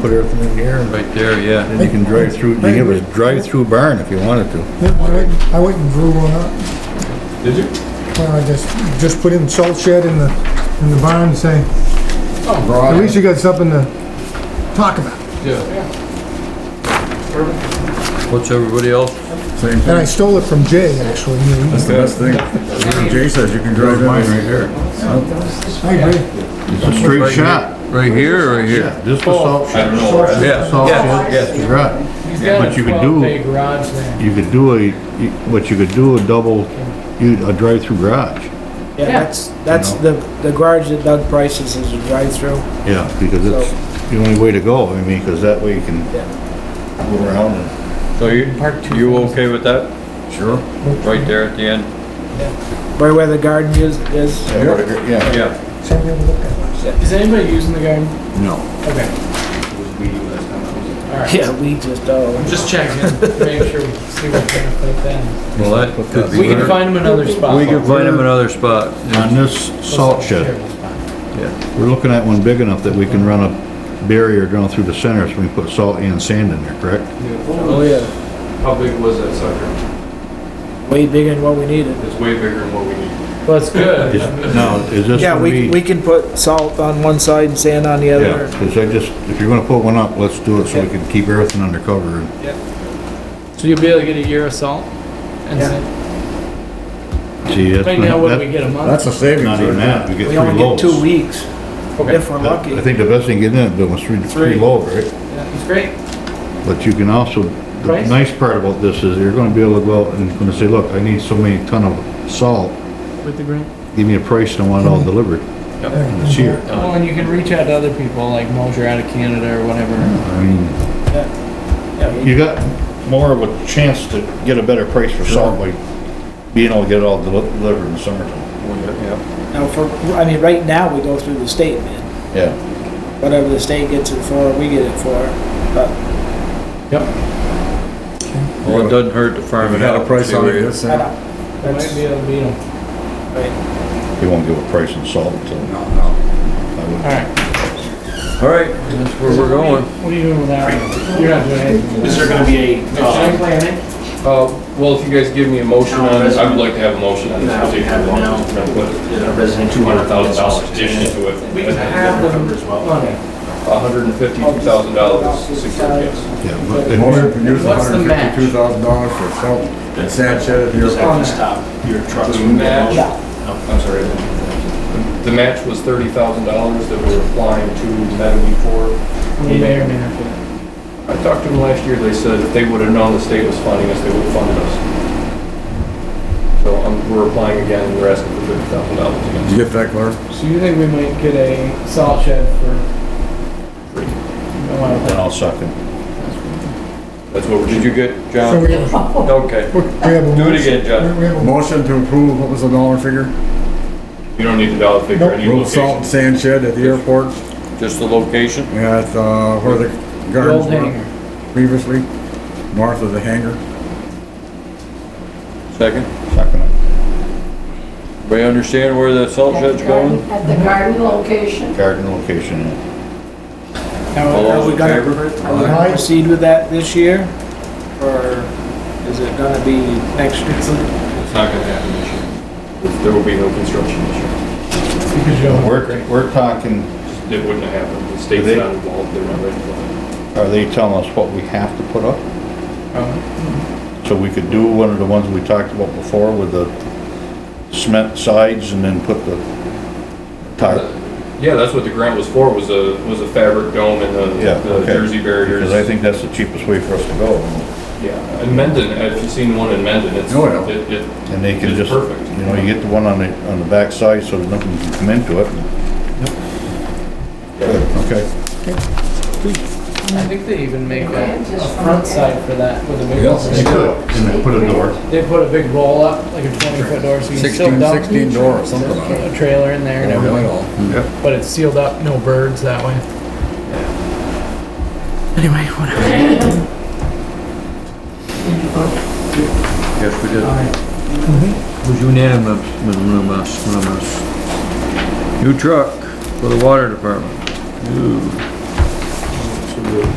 put everything in here and Right there, yeah. then you can drive through, you can have a drive-through barn if you wanted to. Yeah, I went, I went and drew one up, Did you? well, I just, just put in salt shed in the, in the barn, and say, Oh, at broad. least you got something to talk about. Yeah. What's everybody else? Same And I stole it from Jay, actually, you know, That's the best thing. Jay says you can drive mine right here. I agree. It's a straight shot. Right here, or right here? Just the salt shed. Yeah, Salt yeah, shed, yeah. you're right. He's got But a you could do- twelve bay garage there. You could do a, what you could do, a double, you- a drive-through garage. Yeah, that's, that's You the, the garage that Doug prices is a drive-through. Yeah, because it's the only way to go, I mean, because that way you can Yeah. go around and. So you, you okay with that? Sure. Right there at the end? Right where the garden is, is. Yeah. Yeah. Send me a look at it. Is anybody using the garden? No. Okay. All right. Yeah, we just, oh. I'm just checking, to make sure, we see what kind of fit then. Well, that could be. We can better. find him another spot. We can Find him another spot. On this salt shed, we're looking at one big enough that we can run a barrier down through the center so we can put salt and sand in there, correct? Oh, yeah. How big was that sucker? Way bigger than what we needed. It's way bigger than what we need. Well, that's good. Is- Now, is this Yeah, gonna be? we, we can put salt on one side and sand on the Yeah, other. because I just, if you're gonna put one up, let's do it so we can keep everything under cover. So you'll be able to get a year of salt? And then, See, that's. right now, what do we get a month? a savings. Not even that, we get We three only get loads. two weeks, Okay, if we're lucky. I think the best thing getting in, Bill, was three, three Three. loads, right? that's great. But you can also, the Price? nice part about this is you're gonna be able to go out and gonna say, look, I need so many ton of salt, With the green. give me a price and I want it Mm-hmm. all delivered. And It's here. Well, and you Oh. can reach out to other people, like Mosher out of Canada or whatever. I mean, Yeah, we- you got more of a chance to get a better price for salt by being able to get it all deli- delivered in the summertime. Now, for, I mean, right now, we go through the state bid. Yeah. Whatever the state gets it for, we get it for. But Yep. Well, it doesn't hurt to farm it out. See where you- I don't, I might be able to beat him. right, They won't give a price on salt until. No, All no. right. All right, that's where we're going. What are you doing with that one? You're not doing anything. Is there gonna be a, uh, well, if you guys give me a motion on it, I would like to have a motion on this particular one. Put two hundred thousand dollars addition to it. We have the money. A hundred and fifty thousand dollars secured, yes. Yeah, but In order to then- produce What's the hundred match? fifty-two thousand dollars for salt and sand shed, if you're On that. The match, yeah, I'm sorry. The match was thirty thousand dollars that we're applying to Metaweed for. We may or may not get it. I talked to them last year, they said if they would've known the state was funding us, they would've funded us. So um, we're applying again, and we're asking for fifty thousand dollars again. Did you get that, Clark? So you think we might get a salt shed for Free. a lot of then that? I'll suck it. That's what, did you get, So John? we have, Okay, we have a. Do it motion- again, John. we- We have a, Motion to approve, what was the dollar figure? you don't need the dollar figure, Nope. I need Road salt location, and sand shed at the airport, just the location. we had, uh, where the The gardens old were hangar. previously, north of the hangar. Second? Everybody understand where the salt At shed's the garden- going? At the garden location. Garden location, yeah. Now, All are those we in gonna- favor? Are we gonna proceed with that this year? Or is it gonna be next year? It's not gonna happen this year. There will be no construction this year. Because you don't have We're, we're talking, It wouldn't have happened, the state's They- not involved, they're not ready for it. are they telling us what we have to put up? a- Mm-hmm. So we could do one of the ones we talked about before with the cement sides and then put the tile? Yeah, that's what the grant was for, was a, was a fabric dome and Yeah, the the okay. jersey barriers. Because I think that's the cheapest way for us to go. Yeah, in Mendon, have you seen one in Mendon? It's, Oh, yeah. it- it- And they can It's just, perfect. you know, you get the one on the, on the back side so that nothing can come into it. Good, Okay, I think they even make a, Yeah, a just front front. side for that with a big. They and then put a door. They put a big roll up, like a twenty foot door, so you can still Sixteen, dump sixteen door or something on it. a trailer in there and Really everything, all. but it's sealed up, no birds that way. Anyway, whatever. Yes, we did. It was unanimous, unanimous, unanimous. New truck for the water department. Ooh. So do it